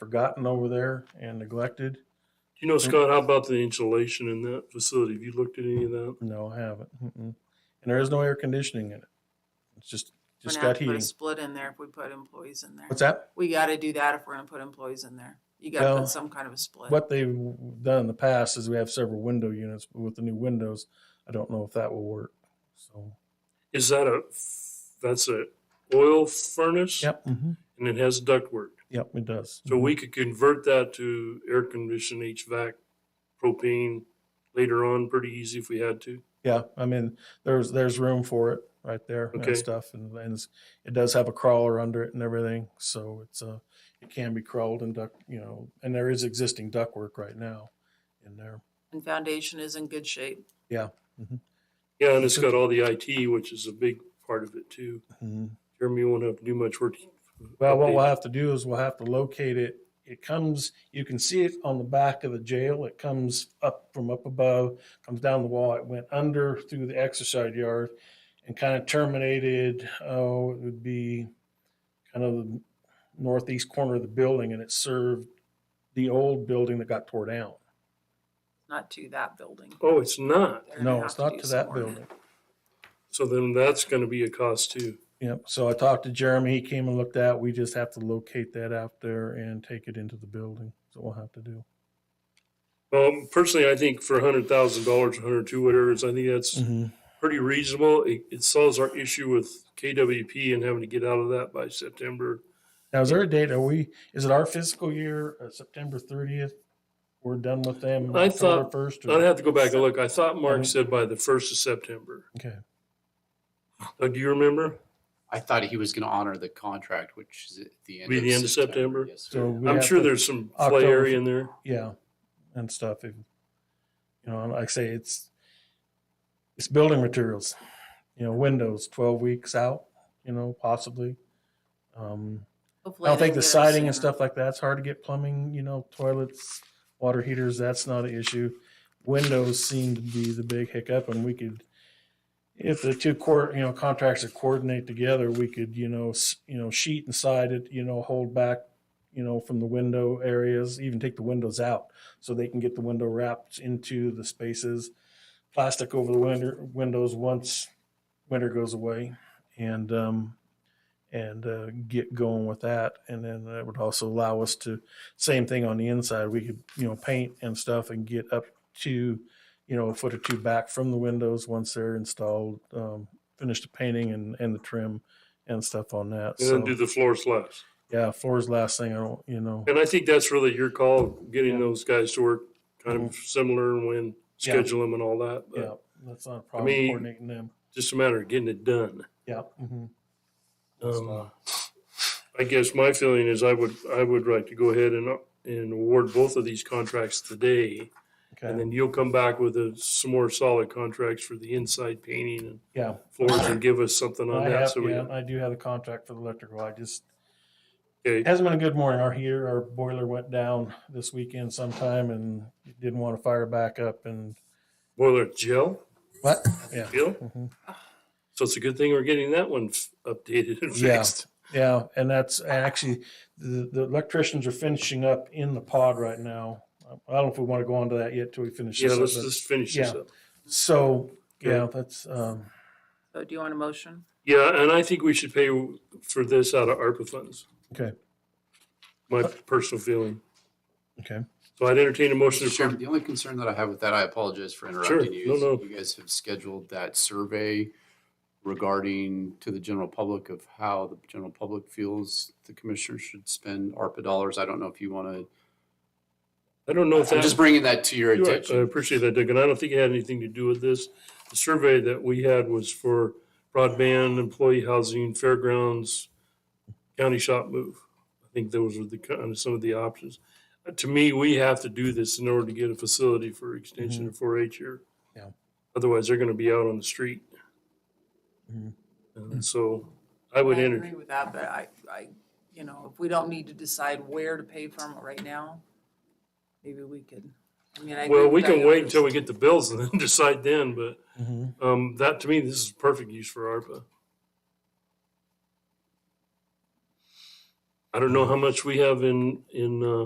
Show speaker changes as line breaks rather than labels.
forgotten over there and neglected.
You know, Scott, how about the insulation in that facility? Have you looked at any of that?
No, I haven't. Mm-mm. And there is no air conditioning in it. It's just,
We're
just
gonna have
got
to put a
heating.
split in there if we put employees in there.
What's that?
We gotta do that if we're gonna put employees in there. You gotta
Well,
put some kind of a split.
What they've done in the past is we have several window units, but with the new windows, I don't know if that will work. So,
Is that a, that's a oil furnace?
yep, Mm-hmm. mhm.
And it has ductwork.
yep, it does.
Mm-hmm. So we could convert that to air conditioned HVAC, propane later on pretty easy if we had to.
Yeah, I mean, there's, there's room for it right there
Okay.
and stuff. And, and it's- it does have a crawler under it and everything. So it's a, it can be crawled and duck, you know, and there is existing ductwork right now in there.
And foundation is in good shape.
Yeah, and it's got all the IT, which is a big part of it too.
Mhm.
Jeremy won't have to do much work.
Well, what we'll
updating.
have to do is we'll have to locate it. It comes, you can see it on the back of the jail. It comes up from up above, comes down the wall. It went under through the exercise yard and kind of terminated, oh, it would be kind of the northeast corner of the building and it served the old building that got tore down.
Not to that building.
Oh, it's not.
They're gonna
No,
have
it's not
do
to
some
that
more.
building.
So then that's gonna be a cost too.
Yep. So I talked to Jeremy. He came and looked at, it. we just have to locate that out there and take it into the building. So we'll have to do.
Well, personally, I think for a hundred thousand dollars, a hundred two, whatever it is, I think that's pretty reasonable. It, it solves our issue with KWP and having to get out of that by September.
Now, is there a date? Are we, is it our fiscal year, uh, September thirtieth? We're done with them
I
October
thought-
first?
I'd have to go back and look. I thought Mark
Mhm.
said by the first of September.
Okay,
Uh, do you remember?
I thought he was going to honor the contract, which is at the end.
Be
of
the end of September?
Yes,
So
sir.
we-
I'm
have
sure
to-
there's some play
October.
area in there.
yeah, and stuff. If- You know, like I say, it's, it's building materials, you know, windows twelve weeks out, you know, possibly. Um, I
Hopefully
don't
they
think
can
the
get it
siding and
sooner.
stuff like that's hard to get plumbing, you know, toilets, water heaters, that's not an issue. Windows seem to be the big hiccup and we could, if the two court, you know, contracts are coordinate together, we could, you know, s- you know, sheet and side it, you know, hold back, you know, from the window areas, even take the windows out so they can get the window wrapped into the spaces. Plastic over the window, windows once winter goes away and, um, and uh, get going with that. And then that would also allow us to, same thing on the inside, we could, you know, paint and stuff and get up to, you know, a foot or two back from the windows once they're installed, um, finish the painting and, and the trim and stuff on that.
And
So,
then do the floor slabs.
yeah, floor's the last thing I don't, you know,
And I think that's really your call, getting
Yeah. Mm-hmm.
those guys to work kind of similar and when
Yeah.
schedule them and all that. But
yeah, that's not a problem
mean-
coordinating them.
Just a matter of getting it done.
Yeah. mhm.
Um, I guess my feeling is I would, I would like to go ahead and, and award both of these contracts today. And
Okay.
then you'll come back with a, some more solid contracts for the inside painting and
Yeah.
floors and give us something on
I
that.
have,
So we,
yeah, I do have a contract for the electrical. I just, It
okay,
hasn't been a good morning. Our heater, our boiler went down this weekend sometime and didn't want to fire back up and
boiler gel,
what? Yeah.
Bill?
Mhm.
So it's a good thing we're getting that one f- updated and
Yeah.
fixed.
Yeah. And that's actually, the, the electricians are finishing up in the pod right now. I don't know if we want to go on to that yet till we finish
Yeah,
this. up,
let's
but-
just finish this
yeah.
up.
So, yeah,
Okay.
that's, um,
So do you want a motion?
Yeah, and I think we should pay for this out of ARPA funds.
Okay.
My personal feeling.
okay.
So I'd entertain a motion
Mr.
to
Chairman,
approve.
the only concern that I have with that, I apologize for
Sure,
interrupting you.
no,
is
no.
You guys have scheduled that survey regarding to the general public of how the general public feels the commissioner should spend ARPA dollars. I don't know if you want to,
I don't know if
I'm just
that,
bringing that to your
You're right. I
attention.
appreciate that, Doug, and I don't think it had anything to do with this. The survey that we had was for broadband, employee housing, fairgrounds, county shop move. I think those were the kind of some of the options. Uh, To me, we have to do this in order to get a facility for extension of four H here.
Yeah.
Otherwise, they're gonna be out on the street.
Mhm.
And so I would enter.
agree with that, but I, I, you know, if we don't need to decide where to pay from it right now, maybe we could. I mean, I. agree
Well,
with
we can
Diane.
wait until we get the bills and then decide then, but
Mm-hmm.
um, that, to me, this is perfect use for ARPA. I don't know how much we have in, in, uh,